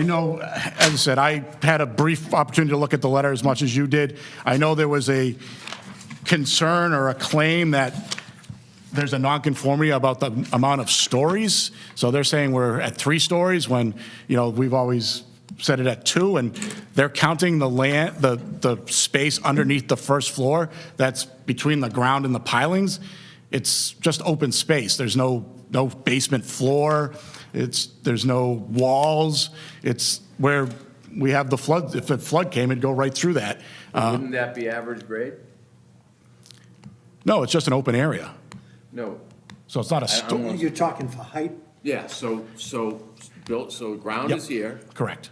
You know, as I said, I had a brief opportunity to look at the letter as much as you did. I know there was a concern or a claim that there's a nonconformity about the amount of stories. So they're saying we're at three stories when, you know, we've always said it at two, and they're counting the land, the, the space underneath the first floor that's between the ground and the pilings. It's just open space. There's no, no basement floor. It's, there's no walls. It's where we have the flood, if a flood came, it'd go right through that. Uh, Wouldn't that be average grade? No, it's just an open area. No. So it's not a I- sto- I'm- You're talking for height? Yeah, so, so, built, so ground Yep. is here, Correct,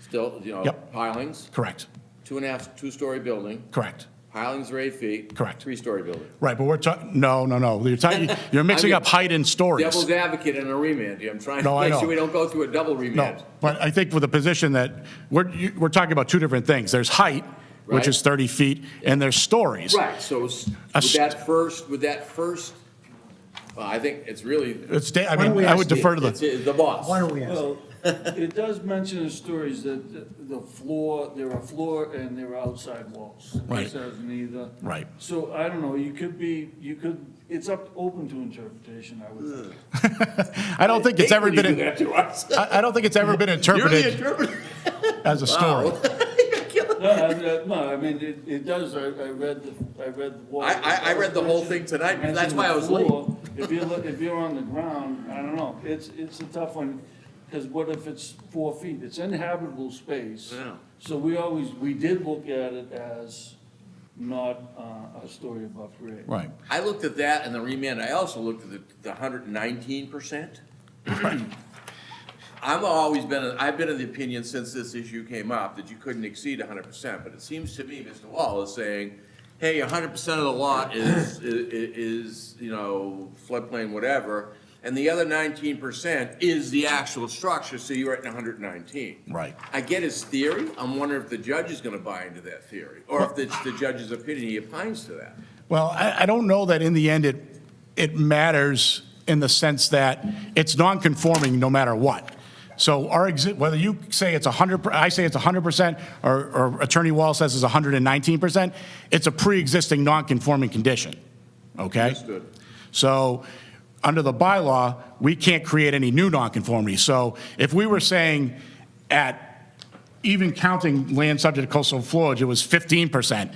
still, you know, Yep. pilings, correct, two and a half, two-story building, correct. pilings are eight feet. Correct. Three-story building. Right, but we're talking, no, no, no. You're talking, you're mixing up height and stories. Devil's advocate in a remand, I'm trying No, to I make sure know. we don't go through a double No, remand. but I think with the position that, we're, you- we're talking about two different things. There's height, which is Right. 30 feet, and there's stories. Right, so s- A with st- that first, with that first, well, I think it's really. It's, da- I don't mean, we I would ask you- defer to It's the, it's the boss. Why don't we ask? Well, it does mention in stories that the- the floor, there are floor and there are outside walls. Right. It says neither. Right. So I don't know, you could be, you could, it's up, open to interpretation, I would think. I don't think it's ever Hate when you do been, that to us. I, I don't think it's ever been You're the interpreted interpreter. as a story. No, I, I- no, I mean, it, it does, I, I read the, I read the wall. I- I- I read the whole thing tonight, Mention that's why I was late. the floor. If you're, li- if you're on the ground, I don't know, it's, it's a tough one, because what if it's four feet? It's inhabitable space. Yeah. So we always, we did look at it as not uh, a story above grade. Right, I looked at that and the remand, I also looked at the, the hundred and nineteen percent. I've always been, I've been of the opinion since this issue came up that you couldn't exceed hundred percent, but it seems to me Mr. Wall is saying, hey, hundred percent of the lot is, i- i- is, you know, floodplain, whatever, and the other nineteen percent is the actual structure, so you're at hundred and nineteen. Right. I get his theory, I'm wondering if the judge is gonna buy into that theory, or if it's the judge's opinion, he opines to that. Well, I, I don't know that in the end it, it matters in the sense that it's non-conforming no matter what. So our exi, whether you say it's 100, per- I say it's 100%, or, or Attorney Wall says it's 119%, it's a pre-existing non-conforming condition, okay? Understood. So, under the bylaw, we can't create any new nonconformity. So if we were saying at, even counting land subject to coastal floods, it was 15%,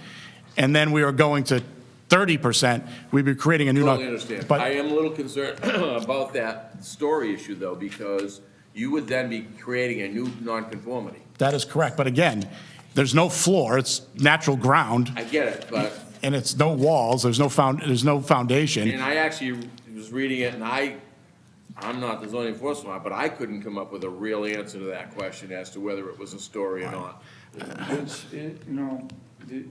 and then we were going to 30%, we'd be creating a new. non- Totally understand. I But, am a little concerned about that story issue, though, because you would then be creating a new nonconformity. that is correct, but again, there's no floor, it's natural ground, I get it, but, and it's no walls, there's no found, there's no foundation. and I actually was reading it, and I, I'm not the zoning enforcement, officer, but I couldn't come up with a real answer to that question as to whether it was a story or not. It's, it, you know, the,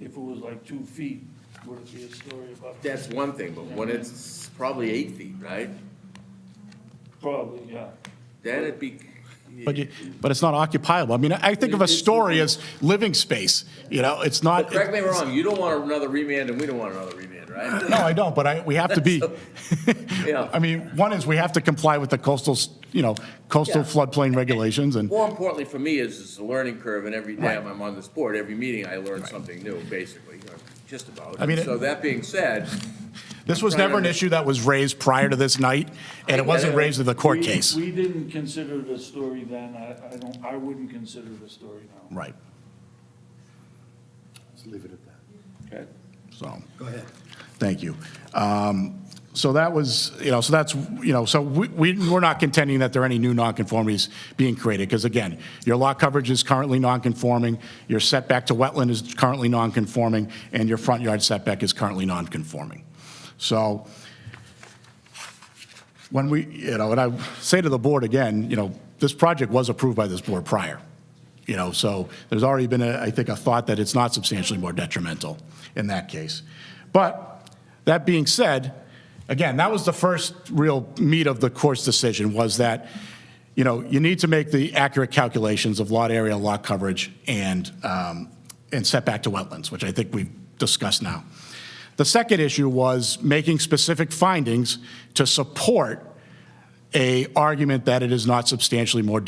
if it was like two feet, would it be a story above? That's one thing, but when it's probably eight feet, right? Probably, yeah. Then it'd be, But, you- but it's not occupiable. I mean, I think of a story as living space, you know, it's not. correct me if I'm wrong, you don't want another remand, and we don't want another remand, right? No, I don't, but I, we have to be, Yeah. I mean, one is we have to comply with the coastal, s- you know, coastal Yeah. floodplain regulations and, More importantly for me is, is the learning curve, and every time I'm on this board, every meeting, I learn something new, basically, or just about. I mean, it- So that being said, this was I'm trying never an to- issue that was raised prior to this night, and it wasn't raised in the court We- case. We didn't consider it a story then, I, I don't, I wouldn't consider it a story now. Right, Let's leave it at that. so, Go ahead. thank you. Um, So that was, you know, so that's, you know, so we, we- we're not contending that there are any new nonconformities being created, because again, your lot coverage is currently nonconforming, your setback to wetland is currently nonconforming, and your front yard setback is currently nonconforming. So, when we, you know, and I say to the board again, you know, this project was approved by this board prior, you know, so there's already been, a- I think, a thought that it's not substantially more detrimental in that case. But that being said, again, that was the first real meat of the court's decision was that, you know, you need to make the accurate calculations of lot area, lot coverage, and, um, and setback to wetlands, which I think we've discussed now. The second issue was making specific findings to support a argument that it is not substantially more